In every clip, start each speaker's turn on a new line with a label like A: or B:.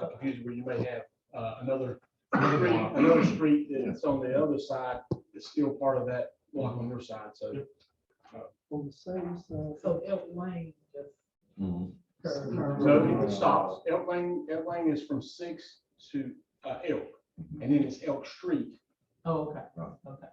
A: confused where you may have uh, another, street- another street that's on the other side that's still part of that block on your side, so.
B: On the same side.
C: So Elk Lane just.
A: Mm-hmm.
D: Mhm.
C: curved.
A: So it stops, Elk Lane, Elk Lane is from Six to uh, Elk, and then it's Elk Street.
C: Oh, okay,
D: Right.
C: okay.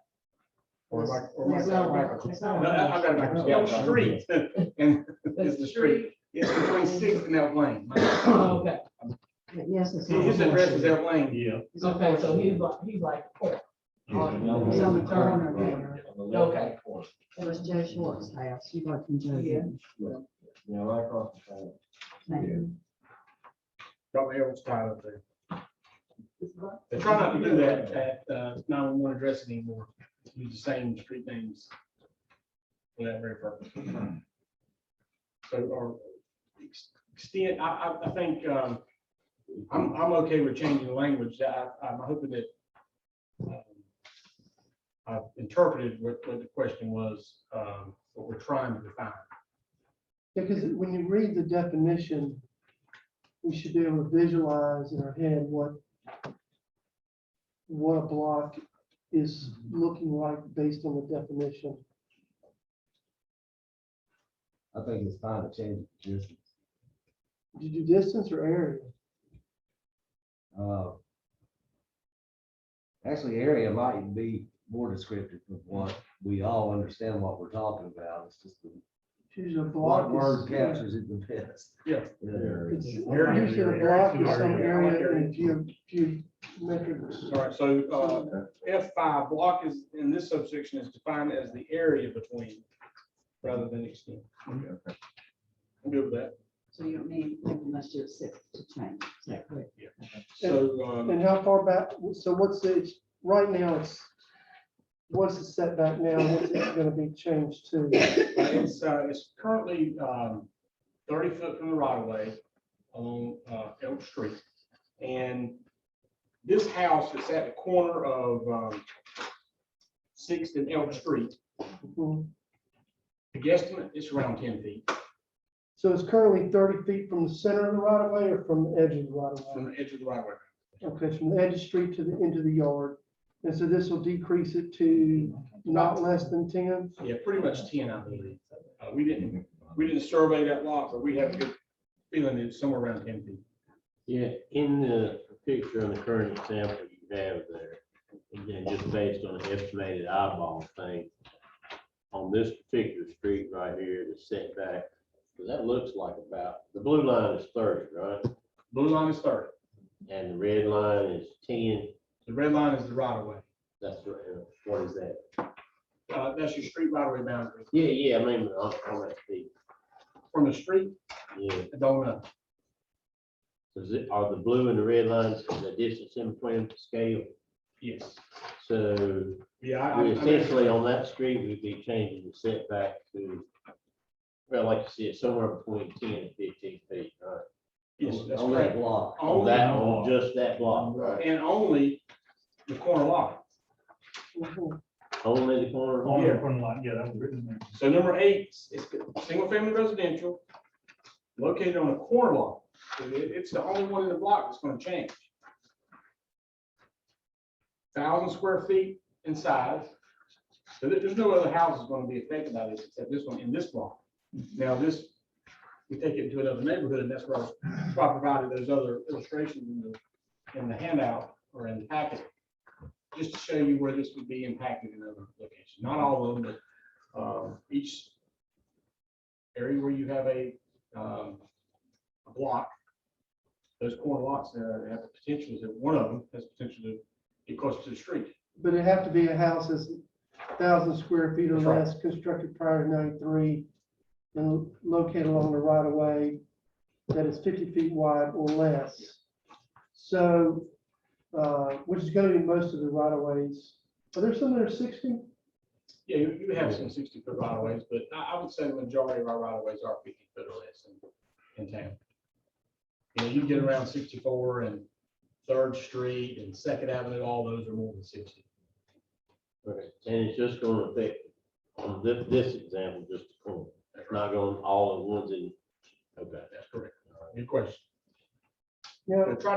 A: Or like, or like
B: It's
A: that
B: not
A: backwards.
B: one- it's
A: No,
B: not one-
A: I I got it backwards. Elk Street, and
C: That's
A: it's the street, it's between Sixth and Elk Lane. My-
C: Oh, Okay,
B: Yes, it's. on
A: His
B: the
A: address is
B: corner.
A: Elk Lane.
E: Yeah.
B: It's on the
C: okay, so
B: corner.
C: he's like, he's like, oh,
B: It's on the
C: Yeah.
B: corner there.
C: Okay.
B: It was Joe Schwartz's house. She worked in Joe.
C: Yeah.
B: Gibbs.
D: Yeah, right across the trail.
A: Probably Elk's tied up there. They try not to do that at uh, nine-one-one address anymore, use the same street names. For that very purpose. So, or ex- extend, I, I, I think, um, I'm, I'm okay with changing the language, I, I'm hoping that um, I've interpreted what, what the question was, um, what we're trying to define.
F: Because when you read the definition, we should be able to visualize in our head what what a block is
A: Mm-hmm.
F: looking like based on the definition.
D: I think it's fine to change it, just,
F: Did you do distance or area?
D: uh. Actually, area might be more descriptive of what we all understand what we're talking about, it's just the
F: Usually a block
D: what word
F: is.
D: captures it the best.
A: Yeah.
D: Yeah.
F: it's-
A: Area.
F: Usually a block is some
A: Area.
F: area in geo- geometric.
A: All right, so, uh, F five block is, in this subsection is defined as the area between rather than extent. I'm good with that.
B: So you don't need, unless you're sick to change. Is that correct?
A: So, um,
F: And how far back, so what's the, it's- right now it's, what's the setback now? What's it gonna be changed to?
A: it's, uh, it's currently, um, thirty foot from the right of way along, uh, Elk Street. And this house is at the corner of, um, Sixth and Elk Street.
F: Mhm.
A: The guesstimate is around ten feet
F: So it's currently thirty feet from the center of the right of way or from the edge of the right of way?
A: from the edge of the right of way.
F: Okay, it's from the edge of the street to the end of the yard. And so this will decrease it to not less than ten?
A: Yeah, pretty much ten, I believe. Uh, we didn't, we didn't survey that lot, but we have a good feeling it's somewhere around ten feet.
G: Yeah, in the picture on the current example you have there, again, just based on an estimated eyeball thing, on this particular street right here, the setback, that looks like about, the blue line is thirty, right?
A: Blue line is thirty.
G: And the red line is ten,
A: The red line is the right of way.
G: that's right, uh, what is that?
A: Uh, that's your street right of way boundary.
G: Yeah, yeah, I mean, on, on that feet,
A: From the street,
G: yeah.
A: I don't know.
G: Is it, are the blue and the red lines, the distance in between scale?
A: Yes.
G: So
A: Yeah. I- I- I
G: We
A: mean-
G: Essentially, on that street, we'd be changing the setback to, well, like you said, somewhere between ten and fifteen feet, right?
A: Yes, that's
D: On that
A: correct.
D: block.
G: On that,
A: Only-
G: on just that block, right?
A: And only the corner lot.
F: Mhm.
G: Only the corner.
E: On
A: Yeah.
E: the corner lot, yeah, that was written there.
A: So number eight is single family residential located on a corner lot. It- it's the only one in the block that's gonna change. Thousand square feet in size. So there- there's no other house that's gonna be affected by this except this one in this block. Now this, we take it to another neighborhood and that's where I was- that's why I provided those other illustrations in the, in the handout or in the packet. Just to show you where this would be impacted in other locations. Not all of them, but um, each area where you have a, um, a block, those corner lots there have the potential, that one of them has potential to get close to the street.
F: But it'd have to be a house that's thousand square feet or
A: That's right.
F: less, constructed prior to ninety-three and located along the right of way that is fifty feet wide or less. So, uh, which is gonna be most of the right of ways. Are there some that are sixty?
A: Yeah, you, you have some sixty foot right of ways, but I, I would say the majority of our right of ways are fifty foot or less in, in town. You know, you get around sixty-four and Third Street and Second Avenue, all those are more than sixty.
G: Okay, And it's just gonna affect, on this, this example, just the corner, it's not going all the ones in, okay.
A: That's correct. Your question.
F: Yeah,
A: Try to